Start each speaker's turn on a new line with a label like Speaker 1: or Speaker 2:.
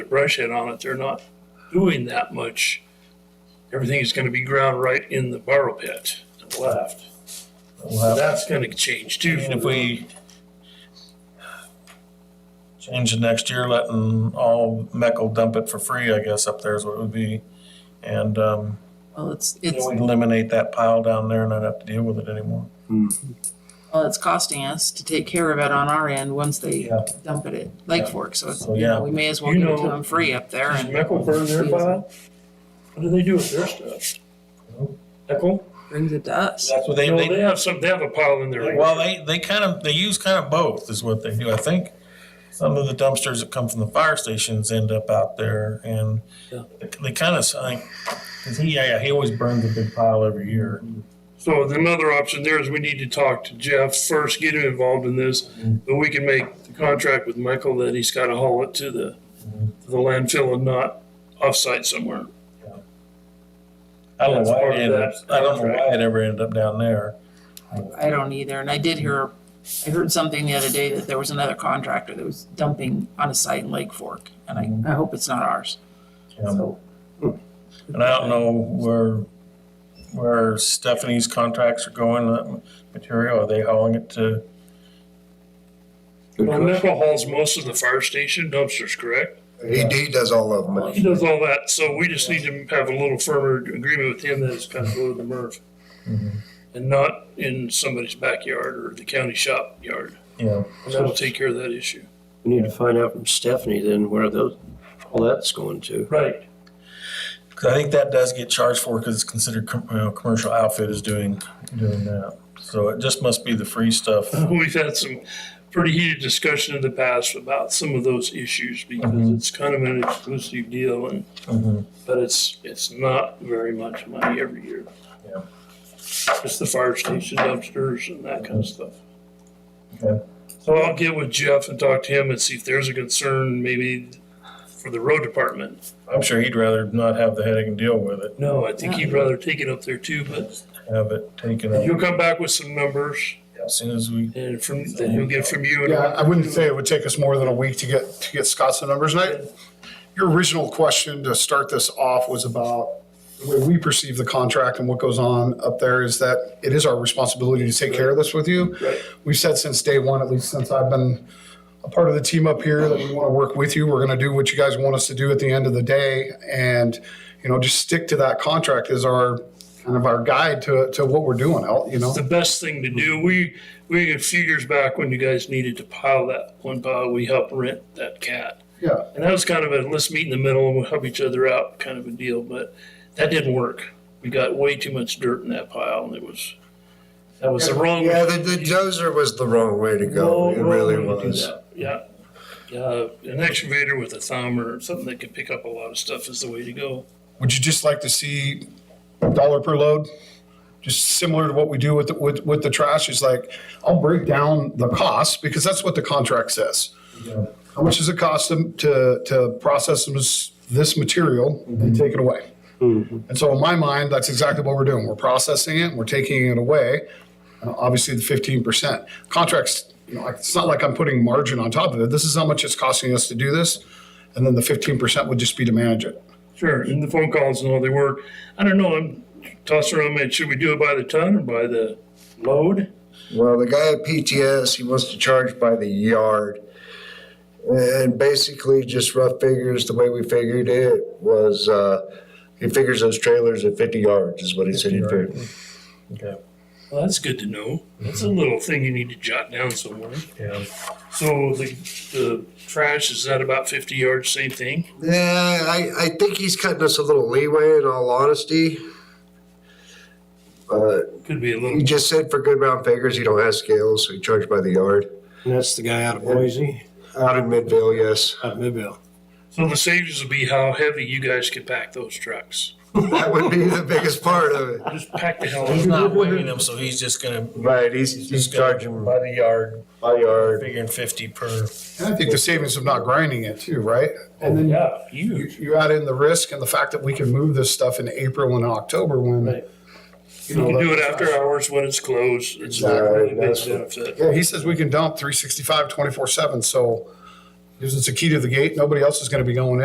Speaker 1: brush head on it, they're not doing that much. Everything is gonna be ground right in the borrow pit and left. So that's gonna change too.
Speaker 2: And if we change it next year, letting all Meckel dump it for free, I guess, up there is what it would be. And, um,
Speaker 3: Well, it's,
Speaker 2: you
Speaker 3: it's,
Speaker 2: know, we'd eliminate that pile down there and not have to deal with it anymore.
Speaker 3: well, it's costing us to take care of it on our end once they
Speaker 2: Yeah.
Speaker 3: dump it at Lake
Speaker 2: Yeah.
Speaker 3: Fork, so it's,
Speaker 2: So,
Speaker 3: you
Speaker 2: yeah.
Speaker 3: know, we may as well
Speaker 1: You
Speaker 3: give it to
Speaker 1: know-
Speaker 3: them free up there
Speaker 1: Does
Speaker 3: and
Speaker 1: Meckel burn their pile? What do they do with their stuff? Meckel?
Speaker 3: brings it to us.
Speaker 2: That's what they,
Speaker 1: No, they
Speaker 2: they,
Speaker 1: have some, they have a pile in there.
Speaker 2: well, they, they kind of, they use kind of both is what they do. I think some of the dumpsters that come from the fire stations end up out there and
Speaker 1: Yeah.
Speaker 2: they kind of, I think, cause he, yeah, he always burns a big pile every year.
Speaker 1: So another option there is we need to talk to Jeff first, get him involved in this, but we can make the contract with Michael that he's gotta haul it to the, to the landfill and not offsite somewhere.
Speaker 2: I don't
Speaker 1: That's
Speaker 2: know why
Speaker 1: part
Speaker 2: it
Speaker 1: of
Speaker 2: ended up,
Speaker 1: that
Speaker 2: I don't know
Speaker 1: contract.
Speaker 2: why it ever ended up down there.
Speaker 3: I don't either, and I did hear, I heard something the other day that there was another contractor that was dumping on a site in Lake Fork, and I, I hope it's not ours.
Speaker 2: Mm-hmm. Yeah.
Speaker 3: So,
Speaker 2: And I don't know where, where Stephanie's contracts are going, that material, are they hauling it to?
Speaker 1: Well, Michael hauls most of the fire station dumpsters, correct?
Speaker 4: AD does all of them.
Speaker 1: He does all that, so we just need to have a little firmer agreement with him that it's kind of below the MRF Mm-hmm. and not in somebody's backyard or the county shop yard.
Speaker 2: Yeah,
Speaker 1: And that'll take care of that issue.
Speaker 5: We need to find out from Stephanie then where those, all that's going to.
Speaker 1: Right.
Speaker 2: cause I think that does get charged for, cause it's considered, com- you know, commercial outfit is doing, doing that. So it just must be the free stuff.
Speaker 1: We've had some pretty heated discussion in the past about some of those issues because
Speaker 2: Mhm.
Speaker 1: it's kind of an exclusive deal and,
Speaker 2: Mhm.
Speaker 1: but it's, it's not very much money every year.
Speaker 2: Yeah.
Speaker 1: It's the fire station dumpsters and that kind of stuff.
Speaker 2: Mm-hmm. Okay.
Speaker 1: So I'll get with Jeff and talk to him and see if there's a concern maybe for the road department.
Speaker 2: I'm sure he'd rather not have the headache and deal with it,
Speaker 1: No, I think he'd rather take it up there too, but
Speaker 2: have it taken
Speaker 1: he'll
Speaker 2: out
Speaker 1: come back with some numbers
Speaker 2: as soon as we.
Speaker 1: and from, then he'll get from you. and-
Speaker 4: Yeah, I wouldn't say it would take us more than a week to get, to get Scott's the numbers. And I, your original question to start this off was about the way we perceive the contract and what goes on up there is that it is our responsibility to take care of this with you.
Speaker 1: Right.
Speaker 4: We've said since day one, at least since I've been a part of the team up here, that we want to work with you. We're going to do what you guys want us to do at the end of the day. And, you know, just stick to that contract is our, kind of our guide to, to what we're doing, you know?
Speaker 1: the best thing to do. We, we, a few years back when you guys needed to pile that one pile, we helped rent that cat.
Speaker 4: Yeah.
Speaker 1: And that was kind of a, let's meet in the middle and we'll help each other out kind of a deal, but that didn't work. We got way too much dirt in that pile and it was, that was the wrong.
Speaker 6: Yeah, the, the dozer was the wrong way to go.
Speaker 1: wrong-
Speaker 6: It
Speaker 1: wrong
Speaker 6: really
Speaker 1: way to do
Speaker 6: was.
Speaker 1: that. Yeah. Yeah, an excavator with a thumb or something that could pick up a lot of stuff is the way to go.
Speaker 4: Would you just like to see dollar per load? Just similar to what we do with, the- with, with the trash is like, I'll break down the cost because that's what the contract says. How much does it cost them to, to process this, this material and take it away? And so in my mind, that's exactly what we're doing. We're processing it, we're taking it away. Uh, Obviously, the fifteen percent contracts, you know, like, it's not like I'm putting margin on top of it. This is how much it's costing us to do this. And then the fifteen percent would just be to manage it.
Speaker 1: Sure, and the phone calls and all they were, I don't know, I'm tossing around, man, should we do it by the ton or by the load?
Speaker 6: Well, the guy at PTS, he wants to charge by the yard. And basically, just rough figures, the way we figured it was uh, he figures those trailers at 50 yards, is what he said he figured.
Speaker 2: Okay,
Speaker 1: Well, that's good to know. That's a little thing you need to jot down somewhere.
Speaker 2: yeah.
Speaker 1: So the, the trash, is that about fifty yards, same thing?
Speaker 6: Yeah, I, I think he's cutting us a little leeway in all honesty. But
Speaker 1: Could be a
Speaker 6: he
Speaker 1: little,
Speaker 6: just said for good round figures, he don't have scales, so he charged by the yard.
Speaker 5: And that's the guy out of Boise,
Speaker 6: Out in Midvale, yes.
Speaker 5: out of Midvale.
Speaker 1: so the savings would be how heavy you guys could pack those trucks.
Speaker 6: That would be the biggest part of it.
Speaker 1: Just pack the hell
Speaker 2: He's
Speaker 1: out
Speaker 2: not
Speaker 1: of it.
Speaker 2: weighing them, so he's just gonna,
Speaker 6: Right, he's, he's
Speaker 2: he's charging
Speaker 6: charging
Speaker 2: by the yard,
Speaker 6: by yard.
Speaker 2: figuring fifty per.
Speaker 4: And I think the savings of not grinding it too, right? And then
Speaker 1: Yeah,
Speaker 4: you,
Speaker 1: huge.
Speaker 4: you add in the risk and the fact that we can move this stuff in April and October when.
Speaker 1: Right.
Speaker 4: You
Speaker 1: You
Speaker 4: know,
Speaker 1: can do it
Speaker 4: that-
Speaker 1: after hours when it's closed. It's a
Speaker 6: Exactly.
Speaker 1: really big
Speaker 6: That's-
Speaker 1: benefit.
Speaker 4: Yeah, he says we can dump three sixty-five, twenty-four seven, so gives us a key to the gate. Nobody else is gonna be going in.